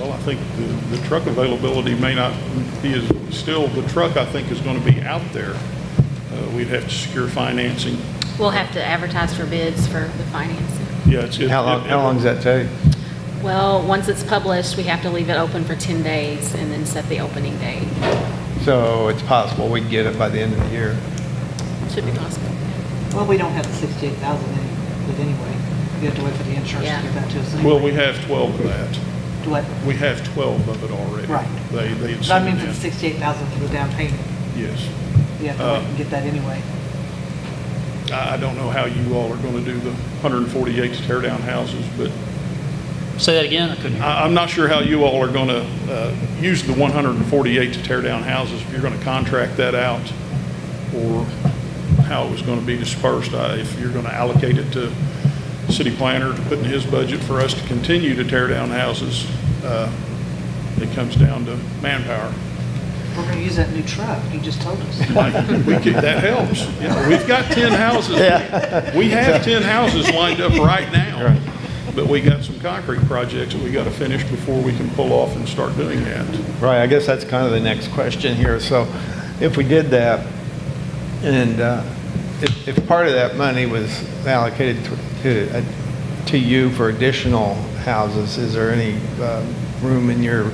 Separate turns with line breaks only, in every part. Well, I think the, the truck availability may not be as, still, the truck, I think, is going to be out there. Uh, We'd have to secure financing.
We'll have to advertise for bids for the financing.
Yeah, it's. it-
How long,
it-
how long does that take?
Well, once it's published, we have to leave it open for 10 days and then set the opening date.
So it's possible we'd get it by the end of the year.
Should be possible.
Well, we don't have the sixty-eight thousand with anyway. You have to wait for the insurance
Yeah.
to get that to us. anyway.
Well, we have 12 of that.
Do what?
We have 12 of it already.
Right.
They, they. had
But I mean,
sent it
for the
in.
sixty-eight thousand for the down payment,
Yes.
you have to
Uh,
wait and get that anyway.
I, I don't know how you all are going to do the 148 tear down houses, but
Say that again, I couldn't hear.
I, I'm not sure how you all are going to use the 148 to tear down houses, if you're going to contract that out, or how it was going to be dispersed, I- if you're going to allocate it to city planner to put in his budget for us to continue to tear down houses, uh, it comes down to manpower.
We're gonna use that new truck, you just told us.
Like, we could, that helps. Yeah, We've got 10 houses, we have 10 houses lined up right now, but we got some concrete projects that we got to finish before we can pull off and start doing that.
Right, I guess that's kind of the next question here. So if we did that, and uh, if, if part of that money was allocated to- to, uh, to you for additional houses, is there any uh, room in your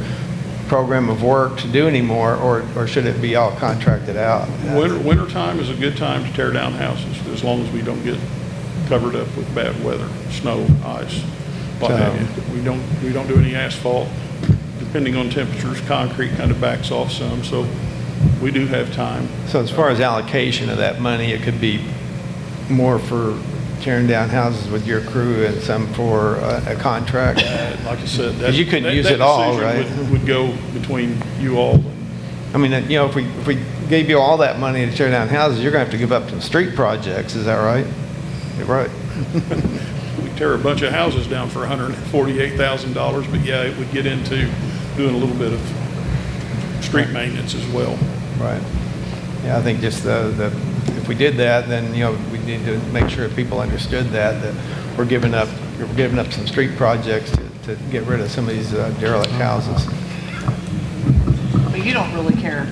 program of work to do any more, or, or should it be all contracted out?
Winter, wintertime is a good time to tear down houses, as long as we don't get covered up with bad weather, snow, ice, what have you. We don't, we don't do any asphalt, depending on temperatures, concrete kind of backs off some, so we do have time.
So as far as allocation of that money, it could be more for tearing down houses with your crew and some for uh, a contract?
Uh, Like I said, that.
'Cause you couldn't
that-
use
that
it all,
decision
right?
would- Would go between you all and
I mean, you know, if we, if we gave you all that money to tear down houses, you're gonna have to give up some street projects, is that right? You're Right.
we tear a bunch of houses down for $148,000, but yeah, it would get into doing a little bit of street maintenance as well.
Right. Yeah, I think just the, the, if we did that, then, you know, we need to make sure people understood that, that we're giving up, we're giving up some street projects to, to get rid of some of these uh, derelict houses.
But you don't really care,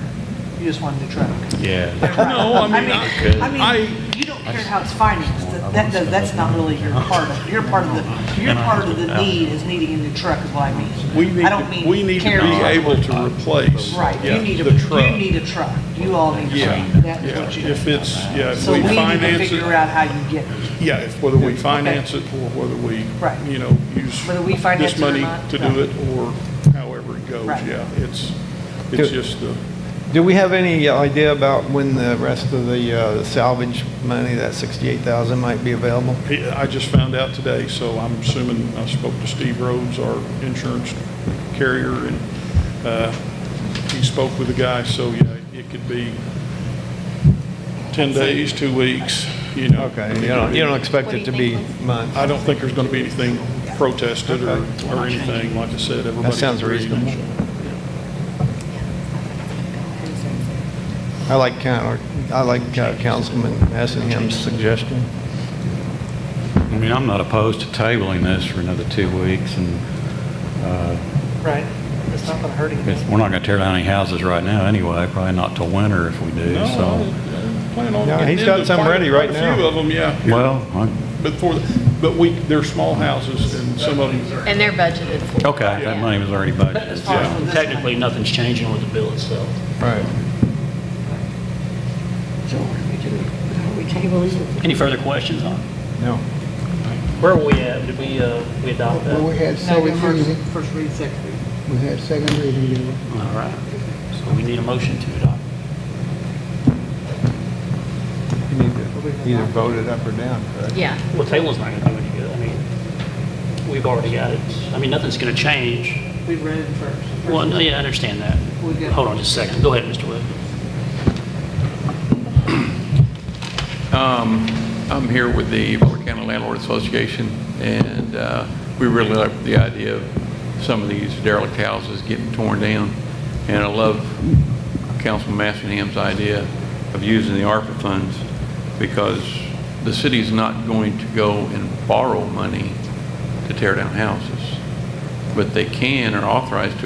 you just want a new truck.
Yeah.
No, I mean, I-
I mean, you don't care how it's financed, That- that, does- that's not really your part of, your part of the, your part of the need is needing a new truck is what I mean.
We need,
I don't
to- we
mean
need to
care.
be able to replace.
Right,
yeah,
you need a,
the truck.
you need a truck, you all need a
Yeah,
truck, that's
yeah.
what you.
If it's, yeah, if
So
we
we need to
finance
figure
it,
out how you get it.
yeah, if whether we finance it or whether we,
Right.
you know, use
Whether we finance
this
it or
money
not,
to
no.
do it or however it goes,
Right.
yeah. It's, it's
Do-
just uh, the,
Do we have any idea about when the rest of the uh, salvage money, that sixty-eight thousand, might be available?
he- I just found out today, so I'm assuming, I spoke to Steve Rhodes, our insurance carrier, and uh, he spoke with the guy, so yeah, it could be 10 days, two weeks, you know.
Okay,
it
you
could
don't,
be-
you don't expect it to be months?
I don't think there's going to be anything protested or, or anything, like I said, everybody.
That sounds reasonable. I like, coun- I like uh, Councilman Assingham's suggestion.
I mean, I'm not opposed to tabling this for another two weeks, and
Right, it's not gonna hurt anything.
it's- we're not going to tear down any houses right now anyway, probably not till winter if we do,
No,
so.
I plan on.
No,
getting
he's got
into
some
quite-
ready right
quite A few
now.
of them, yeah.
Well, I-
But for, but we, they're small houses and some of them,
And they're budgeted for.
okay, that money was already budgeted.
As far as for this one,
Uh, Technically, nothing's changing with the bill itself.
Right.
So what do we do? How do we table it?
Any further questions on it?
No.
Where are we at? Did we, uh, we adopt that?
Well,
All
we had
No,
second
first,
reading,
first read, second read.
we had second reading, you know.
right. So we need a motion to adopt.
You need to either vote it up or down, correct?
Yeah.
Well, table's not gonna do any good. I mean, we've already got it. I mean, nothing's gonna change.
We read it first.
Well, no, yeah, I understand that.
We got-
Hold on just a second. Go ahead, Mr. Wood.
I'm here with the Board County Landlord Association, and uh, we really like the idea of some of these derelict houses getting torn down. And I love Councilman Massingham's idea of using the ARPA funds because the city's not going to go and borrow money to tear down houses. but they can or authorized to